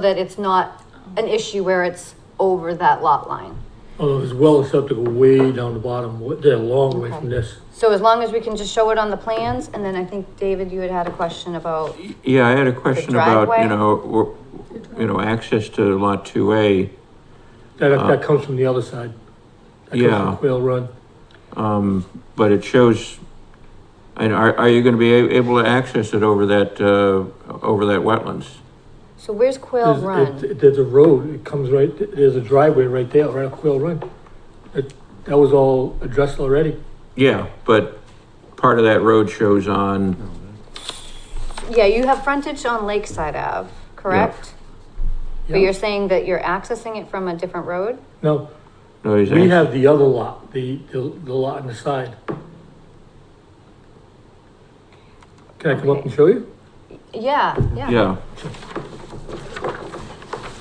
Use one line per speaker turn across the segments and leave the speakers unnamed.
that it's not an issue where it's over that lot line.
Although there's Oh, well acceptable way down the bottom, wa- they're a long way from this.
So as long as we can just show it on the plans, and then I think, David, you had had a question about,
Yeah, I had a question about,
driveway?
you know, w- you know, access to lot two A.
That, that comes from the other side. That comes
Yeah.
from Quail Run.
But it shows, and are, are you gonna be a- able to access it over that, uh, over that wetlands?
so where's Quail
There's- it-
Run?
it- There's a road, it comes right, there's a driveway right there, right up Quail Run. It, that was all addressed already.
Yeah, but part of that road shows on,
Yeah, you have frontage on Lakeside Ave, correct? But
Yeah.
you're saying that you're accessing it from a different road?
No,
no, he's
we
ac-
have the other lot, the, the, the lot on the side. Can I come up and show you?
Yeah, yeah.
yeah,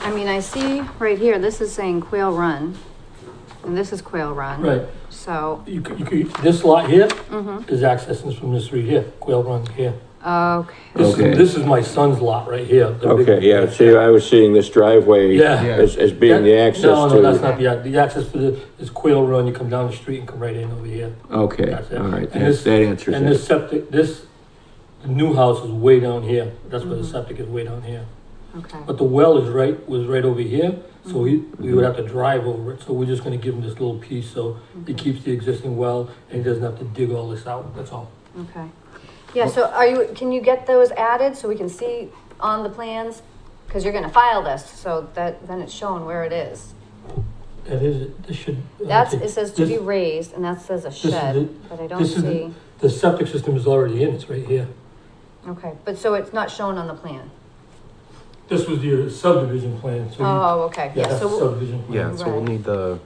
I mean, I see right here, this is saying Quail Run, and this is Quail Run.
Right,
So,
you, c- you, c- this lot here
Mm-hmm.
is accessing from this street here, Quail Run here.
okay,
This
Okay.
is, this is my son's lot right here. the big-
okay, yeah, see, I was seeing this driveway
Yeah.
as, as being the
That-
access
No, no, that's
to.
not the, ac- the access for the, is Quail Run, you come down the street and come right in over here.
Okay,
That's it.
all right,
And
that,
this-
that answers
And this
that.
septic, this, the new house is way down here, that's where the septic is way down here.
okay.
But the well is right, was right over here, so we, we would have to drive over it, so we're just gonna give him this little piece, so he keeps the existing well, and he doesn't have to dig all this out, that's all.
Okay. Yeah, so are you, can you get those added so we can see on the plans? Because you're gonna file this, so that, then it's shown where it is.
That is, this should. I
That's,
think
it says to be
this-
raised, and that says a
is
shed,
it.
but I don't
This is
see.
The septic system is already in, it's right here.
Okay, but so it's not shown on the plan?
This was your subdivision plan, so. you-
Oh, okay,
Yeah,
yeah,
that's the
so,
subdivision plan.
Yeah, so we'll
Right.
need the,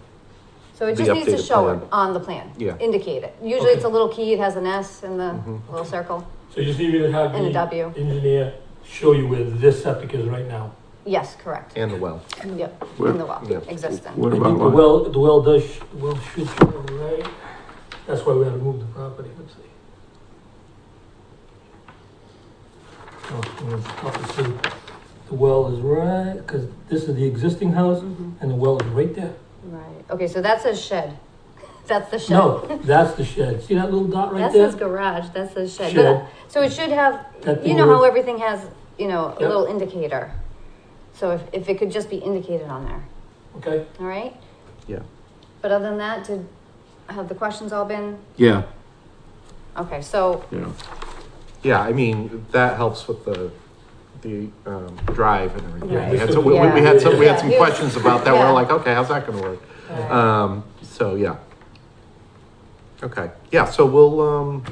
so it
the
just needs to
updated
show it
plan.
on the plan.
Yeah.
Indicate it. Usually it's a
Okay.
little key, it has an S in the
Mm-hmm.
little circle,
So you just need me to have
and a
the
W.
engineer show you where this septic is right now.
Yes, correct.
and the well.
Yep,
Where-
in the well,
yeah.
existing.
What
I
about
think the
lot,
well, the well does, sh- the well should show right, that's why we had to move the property, let's see. Oh, well, it's tough to see. The well is right, because this is the existing house,
Mhm,
and the well is right there.
Right, okay, so that says shed. That's the shed.
No, that's the shed, see that little dot right
That
there?
says garage, that says shed.
Shed.
That- So it should have,
That
you
thing
know how
would-
everything has, you know, a
Yep.
little indicator. So if, if it could just be indicated on there,
Okay,
all right?
Yeah.
But other than that, did, have the questions all been,
yeah,
okay, so,
you know,
Yeah, I mean, that helps with the, the, um, drive and everything.
Yeah.
We had some, we, we had some, we had some
Yeah.
questions about that.
Yeah.
We're like, okay, how's that gonna work?
uh,
Um, so, yeah. Okay, yeah, so we'll, um,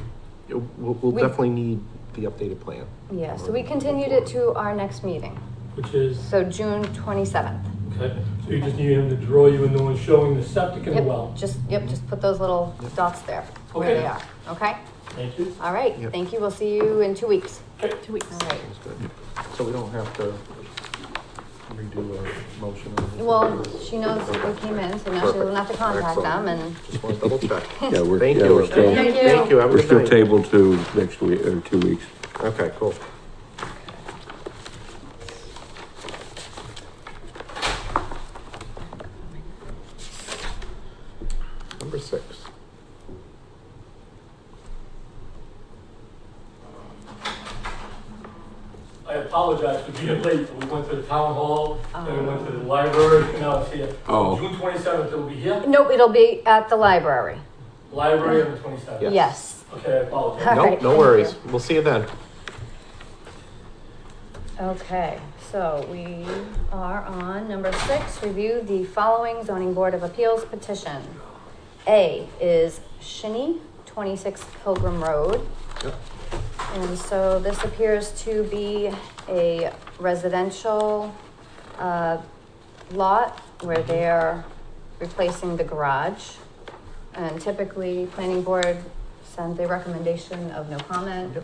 we'll, we'll
We-
definitely need the updated plan.
yeah, so we continued it to our next meeting,
which is,
so June twenty-seventh.
okay, so you just need him to draw you in the one showing the septic and the
Yep.
well.
Just, yep, just put those little dots there, where
Okay.
they are, okay?
Thank you.
All right,
Yep.
thank you, we'll see you in two weeks.
Okay.
Two weeks. All right.
That's good. So we don't have to redo a motion or anything.
Well, she knows we came in, so now she doesn't have to contact them and.
Just wanna double check.
yeah, we're,
Thank
yeah,
you.
we're still,
Thank you.
Thank you, have a
we're
good
still
night.
tabled to next week, or two weeks.
Okay, cool. Number six.
I apologize for being late, but we went to the town hall, then we went to the library, and now it's here.
Oh.
June twenty-seventh, it'll be here,
Nope, it'll be at the library.
library on the twenty-seventh.
Yes.
Yes.
Okay, I apologize.
All
No,
right, thank
no
you.
worries. We'll see you then.
Okay, so we are on number six, review the following zoning board of appeals petition. A is Shinny, twenty-six Pilgrim Road.
Yep.
And so this appears to be a residential, uh, lot where they're replacing the garage. And typically, planning board sends a recommendation of no comment
Yep.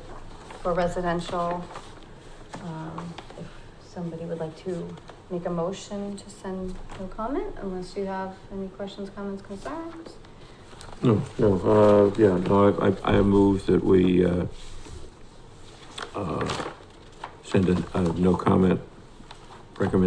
for residential. Um, If somebody would like to make a motion to send no comment, unless you have any questions, comments, concerns?
No, no, uh, yeah, no, I, I, I move that we, uh, uh, send a, a no comment recommendation